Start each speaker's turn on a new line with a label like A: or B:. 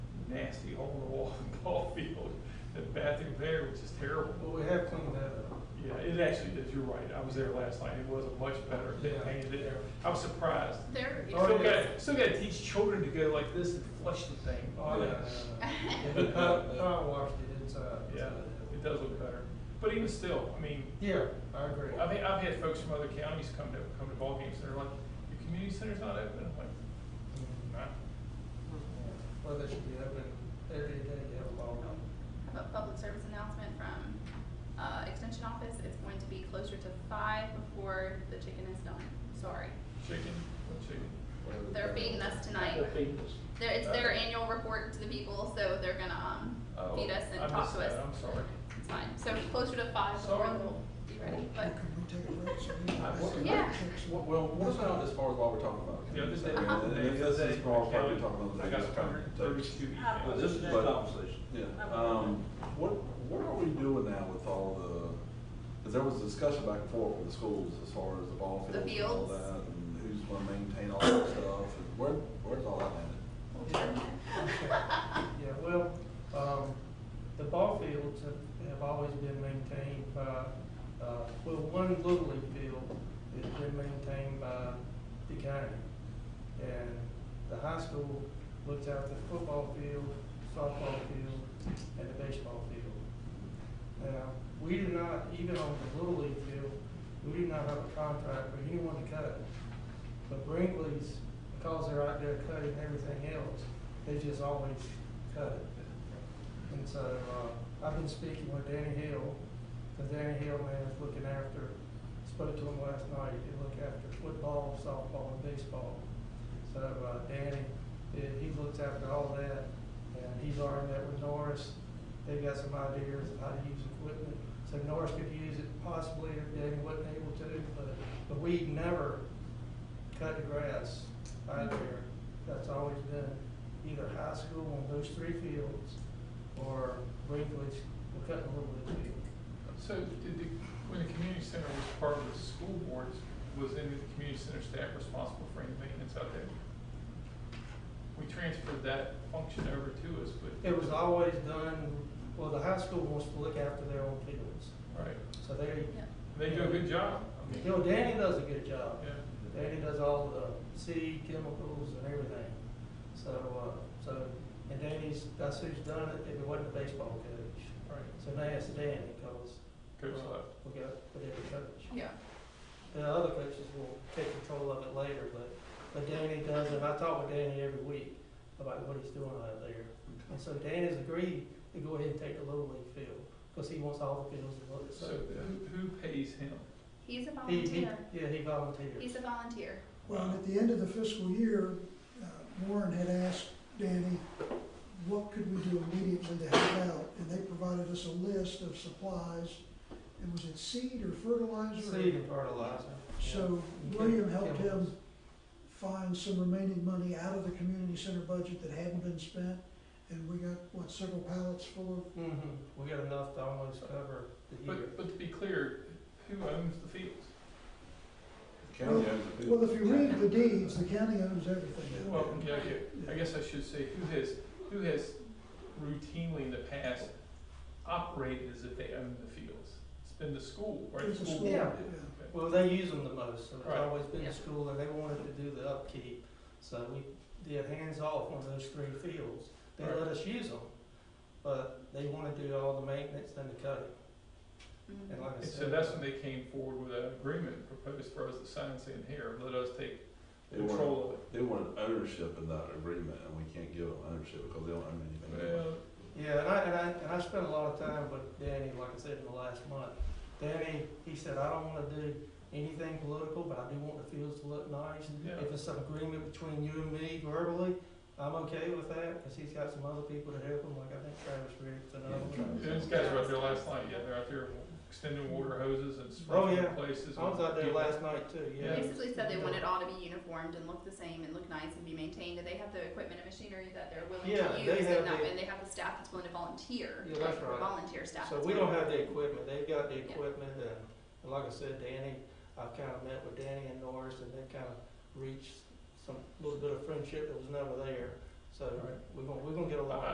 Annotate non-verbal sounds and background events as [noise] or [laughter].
A: [laughs] the bathroom there, which is terrible.
B: Well, we have cleaned that up.
A: Yeah, it actually is, you're right, I was there last night, it wasn't much better, they
B: Yeah.
A: painted it, I was surprised.
C: There
A: You
C: is.
A: Still
B: yeah.
A: gotta, still gotta teach children to go like this and flush the thing.
B: Oh, yeah. yeah, yeah. I, I washed it inside.
A: Yeah, it does look better, but even still, I mean,
B: Yeah, I agree.
A: I've, had- I've had folks from other counties come to, come to ballgames, and they're like, your community center's not open, I'm like,
B: Mm,
A: nah.
B: Well, they should be open every day, you have a ball game.
C: I have a public service announcement from uh, Extension Office. It's going to be closer to five before the chicken is done. Sorry.
A: Chicken, what chicken?
C: They're feeding us tonight. They're- It's their annual report to the people, so they're gonna um,
A: Uh, Oh,
C: feed us
A: I
C: and talk
A: missed
C: to
A: that,
C: us.
A: I'm sorry.
C: It's fine. So closer to five before
A: Sorry.
C: we'll be ready, but Yeah.
D: Yeah. Well, well, what's not as far as what we're talking about?
A: The other day,
C: Uh-huh.
A: the
D: This
A: other
D: is
A: day,
D: far as what
A: I
D: we're talking about.
A: I got a hundred and thirty-two.
E: How-
D: But this is
E: Next
D: like-
E: conversation.
D: Yeah, um, what, what are we doing now with all the, because there was discussion back and forth with the schools as far as the ball
C: The
D: fields and all
C: fields.
D: that, and who's gonna maintain all that stuff, and where, where's all that landed?
B: Yeah, well, um, the ball fields have, have always been maintained by, uh, well, one Little League field has been maintained by the county. And the high school looks after the football field, softball field, and the baseball field. Now, we do not, even on the Little League field, we do not have a contract with anyone to cut it. But Brinkley's, because they're out there cutting everything else, they just always cut it. And so, uh, I've been speaking with Danny Hill, the Danny Hill man is looking after, spoke to him last night, he look after football, softball, and baseball. So, uh, Danny, eh, he looks after all that, and he's already met with Norris, they got some ideas of how to use equipment. So Norris could use it possibly if Danny wasn't able to, but, but we never cut the grass out there. That's always been either high school on those three fields or Greenwich, we're cutting a little bit of field.
A: So did the, when the community center was part of the school board, was any of the community center staff responsible for any maintenance out there? We transferred that function over to us, but.
B: It was always done, well, the high school wants to look after their own fields.
A: Right,
B: So they,
C: [laughs] Yeah.
A: they do a good job. I mean,
B: you know, Danny does a good job.
A: Yeah,
B: Danny does all the seed chemicals and everything. So, uh, so, and Danny's, that's who's done it, if it wasn't the baseball coach.
A: right,
B: So now it's Danny, cause.
A: coach
B: uh,
A: left.
B: We got, we have a coach.
C: Yeah.
B: The other coaches will take control of it later, but, but Danny does, and I talk with Danny every week about what he's doing out there. And so Danny's agreed to go ahead and take the little league field, because he wants all the fields to look,
A: So
B: so.
A: who, who pays him?
C: He's a
B: He, he,
C: volunteer.
B: yeah, he volunteered.
C: He's a volunteer.
F: Well, at the end of the fiscal year, uh, Warren had asked Danny, what could we do immediately to help out? And they provided us a list of supplies, and was it seed or fertilizer?
B: Seed and fertilizer.
F: So
B: Yeah.
F: William helped
B: Chemicals.
F: him find some remaining money out of the community center budget that hadn't been spent, and we got, what, several pallets full of
B: Mhm. we got enough to almost cover the year.
A: But, but to be clear, who owns the fields?
D: County owns the field.
F: Well, if you read the deeds, the county owns everything.
A: Well, yeah, yeah, I guess I should say, who has, who has routinely in the past operated as if they own the fields? It's been the school, right?
F: There's a school,
B: Yeah.
F: yeah.
B: Well, they use them the most, so it's
A: Right.
B: always been
C: Yeah.
B: the school, and they wanted to do the upkeep, so we did hands-off on those three fields. They
A: Right.
B: let us use them, but they wanna do all the maintenance and the cutting,
C: Mhm.
B: and like I
A: And
B: said. uh,
A: so that's when they came forward with an agreement proposed for us to sign saying, here, let us take
D: They wanted,
A: control of it.
D: they wanted ownership in that agreement, and we can't give them ownership because they don't own anything. anyway.
A: Well,
B: Yeah, and I, and I, and I spent a lot of time with Danny, like I said, in the last month. Danny, he said, I don't wanna do anything political, but I do want the fields to look nice.
A: Yeah.
B: If it's an agreement between you and me verbally, I'm okay with that, cause he's got some other people to help him, like I think Travis Riggs and
D: Yeah,
B: others.
D: trying to-
A: Those guys were out there last night, yeah, they're out there extending water hoses and
B: Oh, yeah.
A: sprinkling places.
B: I was out there last night too,
C: They
A: Yeah.
B: yeah.
C: Basically said they want it all to be uniformed and look the same and look nice and be maintained, and they have the equipment and machinery that they're willing
B: Yeah,
C: to
B: they
C: use,
B: have
C: and not,
B: the-
C: and they have the staff that's willing to volunteer.
B: Yeah, that's
C: like,
B: right.
C: Volunteer staff.
B: So
C: that's
B: we don't
C: willing-
B: have the equipment, they've got the
C: Yeah.
B: equipment, and, and like I said, Danny, I've kinda met with Danny and Norris, and they kinda reached some, little bit of friendship that was never there. So,
A: Right.
B: we're gonna, we're gonna get along.
A: I-